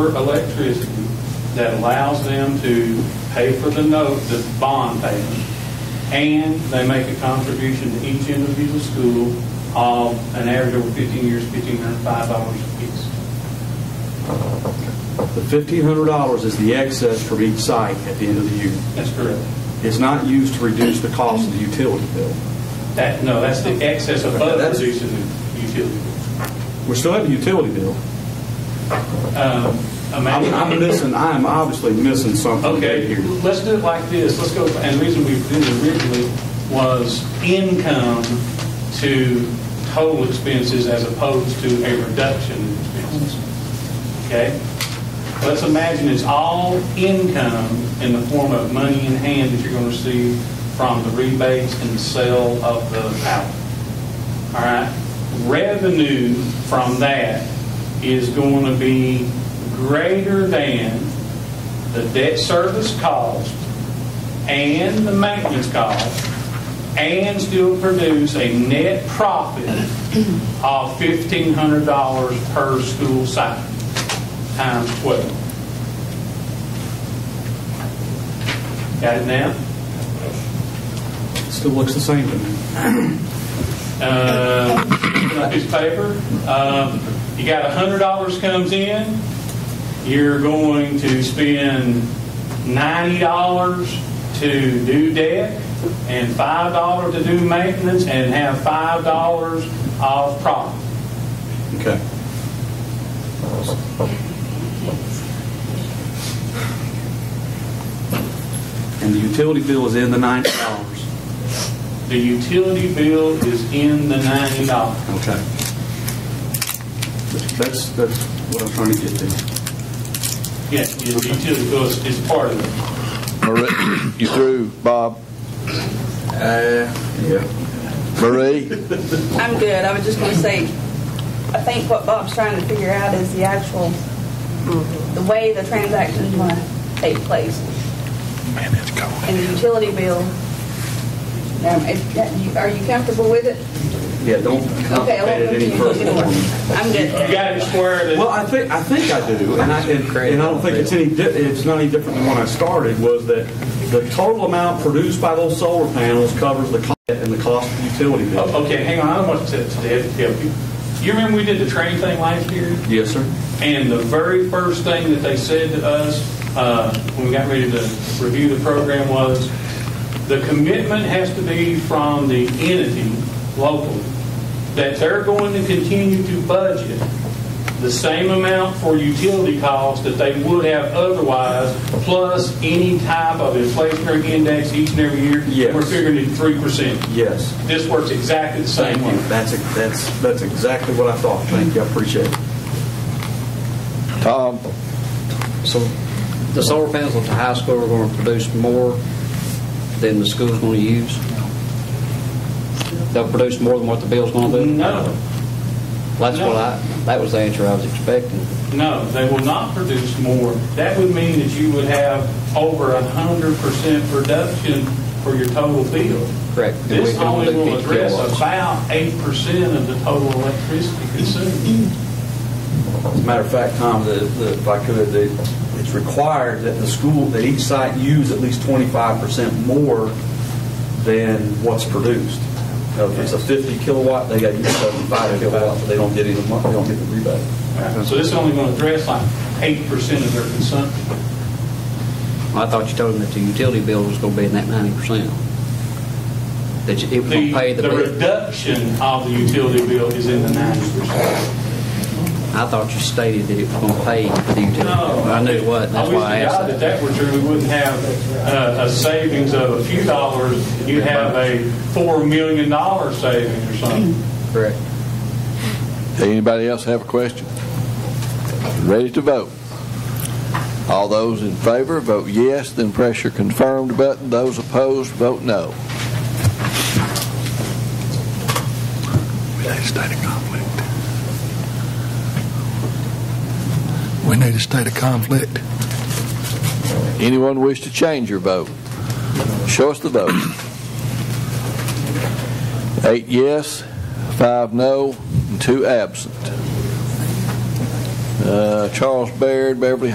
electricity that allows them to pay for the note, the bond payment, and they make a contribution to each individual school of an average over 15 years, $1,505 apiece. The fifteen hundred dollars is the excess from each site at the end of the year. That's correct. It's not used to reduce the cost of the utility bill. That, no, that's the excess above reducing the utility. We're still at the utility bill. Um, I'm, Amanda? I'm missing, I am obviously missing something Okay, here. let's do it like this, let's go, and the reason we did it originally was income to total expenses as opposed to a reduction in expenses. Okay? Let's imagine it's all income in the form of money in hand that you're going to receive from the rebates and the sale of the power. All right? Revenue from that is going to be greater than the debt service cost and the maintenance cost and still produce a net profit of $1,500 per school site times 12. Got it now? Still looks the same to me. Uh, picking up his paper. Um, You got $100 comes in, you're going to spend $90 to do debt and $5 to do maintenance and have $5 of profit. Okay. And the utility bill is in the ninety dollars. The utility bill is in the $90. Okay. That's, that's what I'm trying to get to. Yes, the utility bill is is part of it. Marie, you through, Bob? Yeah. Marie? I'm good. I was just going to say, I think what Bob's trying to figure out is the actual, the way the transaction's going to take place. And the utility bill, um, if that- you- are you comfortable with it? Yeah, don't Okay, complicate I won't it put any you in further. order. I'm You good. got it squared. Well, I think, I think I do, and I, and and I don't think it's any, di- it's not any different than when I started, was that the total amount produced by those solar panels covers the cost and the cost of the utility bill. Oh, Okay, hang on, I don't want to to Ed to help you. You remember we did the train thing last year? Yes, sir. And the very first thing that they said to us uh, when we got ready to review the program was, the commitment has to be from the entity locally, that they're going to continue to budget the same amount for utility costs that they would have otherwise, plus any type of inflationary index each and every year. Yes. We're figuring it 3%. Yes. This works exactly the Thank same way. you. That's, that's, that's exactly what I thought. Thank you, I appreciate it. Tom? So the solar panels at the high school are going to produce more than the school's going to use? They'll produce more than what the bill's going to do? No. That's no. what I, that was the answer I was expecting. No, they will not produce more. That would mean that you would have over a hundred percent reduction for your total bill. Correct. And we This can only will only do address kilowatts. about eight percent of the total electricity consumed. As a matter of fact, Tom, the, the, if I could, the, it's required that the school, that each site use at least twenty-five percent more than what's produced. Now, if it's a fifty kilowatt, they got to use seventy-five kilowatt, but they don't get any, they don't get the rebate. So this is only going to address like eight percent of their consumption. I thought you told them that the utility bill was going to be in that 90%. That you- it was going to pay The, the the bill. reduction of the utility bill is in the ninety percent. I thought you stated that it was going to pay the utility No. bill. I knew it wasn't, that's wish why I to God asked That that. that were true, we wouldn't have uh, a savings of a few dollars. You'd have a four million dollar savings or something. Correct. Anybody else have a question? Ready to vote? All those in favor, vote yes, then press your confirmed button. Those opposed, vote no. We need a state of conflict. We need a state of conflict. Anyone wish to change your vote? Show us the vote. Eight yes, five no, and two absent. Uh, Uh, Charles Baird, Beverly